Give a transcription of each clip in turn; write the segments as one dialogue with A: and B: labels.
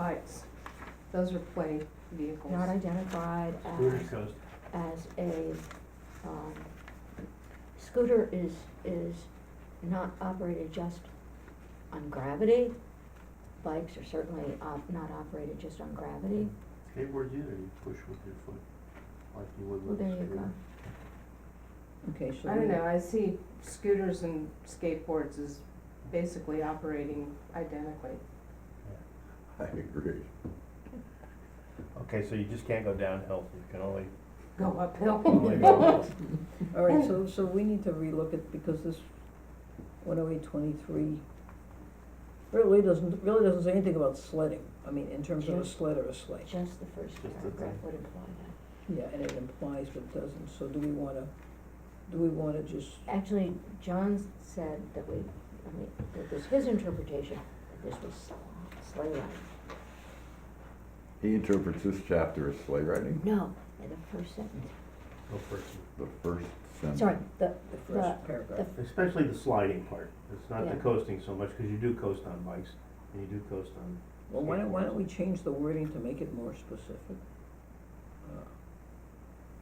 A: bikes,
B: Those are play vehicles.
A: not identified
C: Hooters
A: as,
C: Coast.
A: as a, um, scooter is, is not operated just on gravity. Bikes are certainly op- not operated just on gravity.
C: Skateboards either, you push with your foot, like you would
A: Well,
C: with a
A: there you go.
C: scooter.
D: Okay, so.
B: I don't
D: we-
B: know, I see scooters and skateboards as basically operating identically.
E: I agree.
C: Okay, so you just can't go downhill, you can only,
B: Go
C: only
B: uphill.
C: go up.
D: All right,
A: Oh.
D: so, so we need to relook at, because this one oh eight twenty-three really doesn't, really doesn't say anything about sledding. I mean, in terms of
A: Yeah.
D: a sled or a sleigh.
A: Just the first
C: Just the
A: paragraph
C: thing.
A: would imply that.
D: Yeah, and it implies but doesn't, so do we wanna, do we wanna just,
A: Actually, John said that we, I mean, that was his interpretation, that this was sleigh riding.
E: He interprets this chapter as sleigh riding,
A: No, in the first sentence,
C: Go first.
E: the first sentence.
A: sorry, the,
D: the
A: The-
D: first paragraph?
C: Especially the sliding part, it's not the
A: Yeah.
C: coasting so much, cause you do coast on bikes, and you do coast on,
D: Well, why don't, why don't we change the wording to make it more specific? Uh,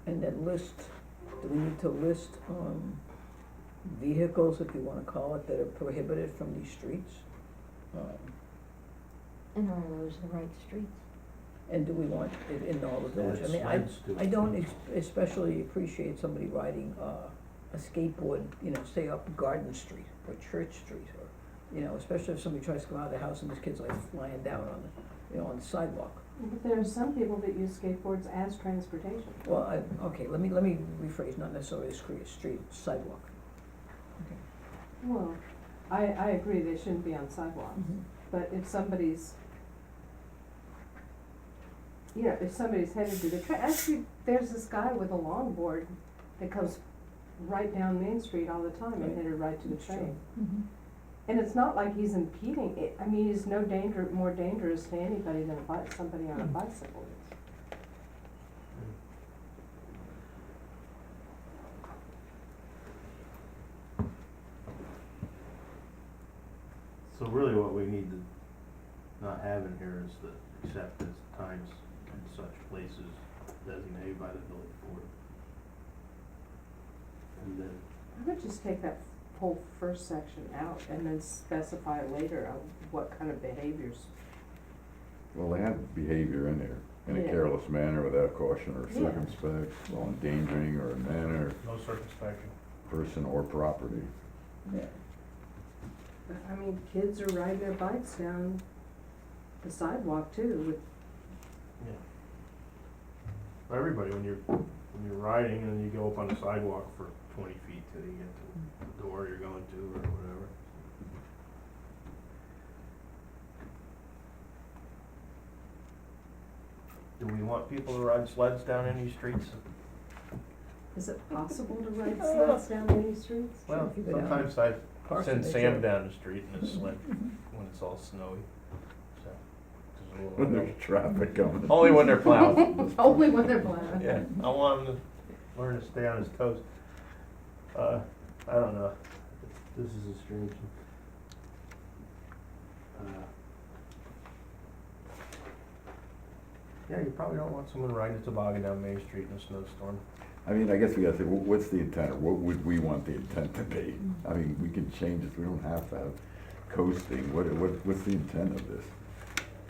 D: And then list, do we need to list, um, vehicles, if you wanna call it, that are prohibited from these streets? Um,
A: and are those the right streets?
D: And do we want it in all the
C: and
D: village?
C: it
D: I mean, I,
C: slides too.
D: I don't ex- especially appreciate somebody riding, uh, a skateboard, you know, say up Garden Street or Church Street or, you know, especially if somebody tries to come out of the house and this kid's like flying down on the, you know, on the sidewalk.
B: But there are some people that use skateboards as transportation.
D: Well, I, okay, let me, let me rephrase, not necessarily a street, street sidewalk.
B: Well, I, I agree, they shouldn't be on sidewalks,
D: Mm-hmm.
B: but if somebody's, you know, if somebody's headed to the, tra- actually, there's this guy with a longboard that comes right down Main Street all the time and
D: Right.
B: headed right to the
D: That's true. Mm-hmm.
B: train. And it's not like he's impeding it, I mean, he's no danger, more dangerous to anybody than a bi- somebody on a
D: Hmm.
B: bicycle is.
C: So really what we need to not have in here is the except as times and such places designated by the village board. And then
B: I would just take that whole first section out and then specify later on what kind of behaviors.
E: Well, they have behavior in there, in a
B: Yeah.
E: careless manner without caution or
B: Yeah.
E: circumspect, while endangering or in manner,
C: No circumspection.
E: person or property.
D: Yeah,
B: I mean, kids are riding their bikes down the sidewalk too with
C: Yeah. For everybody, when you're, when you're riding and you go up on the sidewalk for twenty feet till you get to the door you're going to or whatever. Do we want people to ride sleds down any streets?
B: Is it possible to ride sleds down any streets?
C: Well,
D: if you go down
C: sometimes I
D: Parks and
C: send Sam
D: Rec.
C: down the street in a sled
D: Mm-hmm.
C: when it's all snowy, so. there's a little-
E: When there's traffic coming.
C: Only when they're plowed.
B: Only when they're plowing.
C: Yeah, I want him to learn to stay on his toes. Uh, I don't know. This is a strange one. Uh, Yeah, you probably don't want someone riding a toboggan down Main Street in a snowstorm.
E: I mean, I guess we gotta say, wh- what's the intent, or what would we want the intent to be? I mean, we can change this, we don't have to have coasting, what, what, what's the intent of this?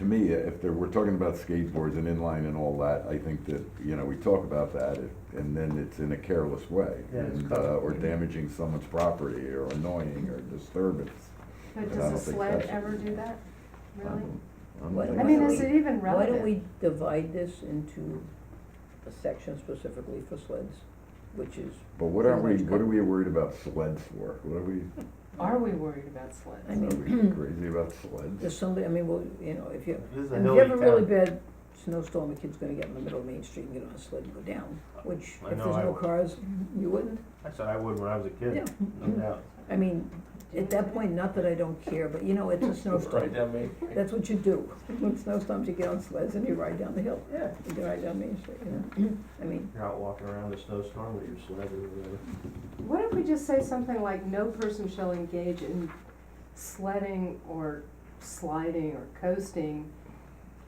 E: To me, uh, if there, we're talking about skateboards and inline and all that, I think that, you know, we talk about that, if- and then it's in a careless way.
C: Yeah, it's
E: and,
C: covered.
E: uh, Or damaging someone's property, or annoying, or disturbance.
B: But
E: I don't
B: does a
E: think
B: sled
E: that's-
B: ever do that, really?
D: Why don't
B: I mean,
D: we-
B: is it even
D: Why don't
B: relevant?
D: we divide this into a section specifically for sleds, which is,
E: But what are we,
D: Pretty much
E: what are we worried about sleds for? What are we,
B: Are we worried about
D: I
B: sleds?
D: mean,
E: are we crazy about sleds?
D: there's somebody, I mean, well, you know, if you,
C: This is a
D: if you
C: hilly
D: have a really
C: town.
D: bad snowstorm, a kid's gonna get in the middle of Main Street and get on a sled and go down, which,
C: I
D: if
C: know
D: there's
C: I
D: no
C: would.
D: cars, you wouldn't?
C: That's what I would when I was a
D: Yeah.
C: kid, no doubt.
D: I mean, at that point, not that I don't care, but you know, it's a
C: Right
D: snowstorm,
C: down Main Street.
D: that's what you do. When snowstorms, you get on sleds and you ride down the hill,
C: Yeah,
D: you ride down Main Street, you know, I mean,
C: you're out walking around a snowstorm with your sled or whatever.
B: What if we just say something like, no person shall engage in sledding or sliding or coasting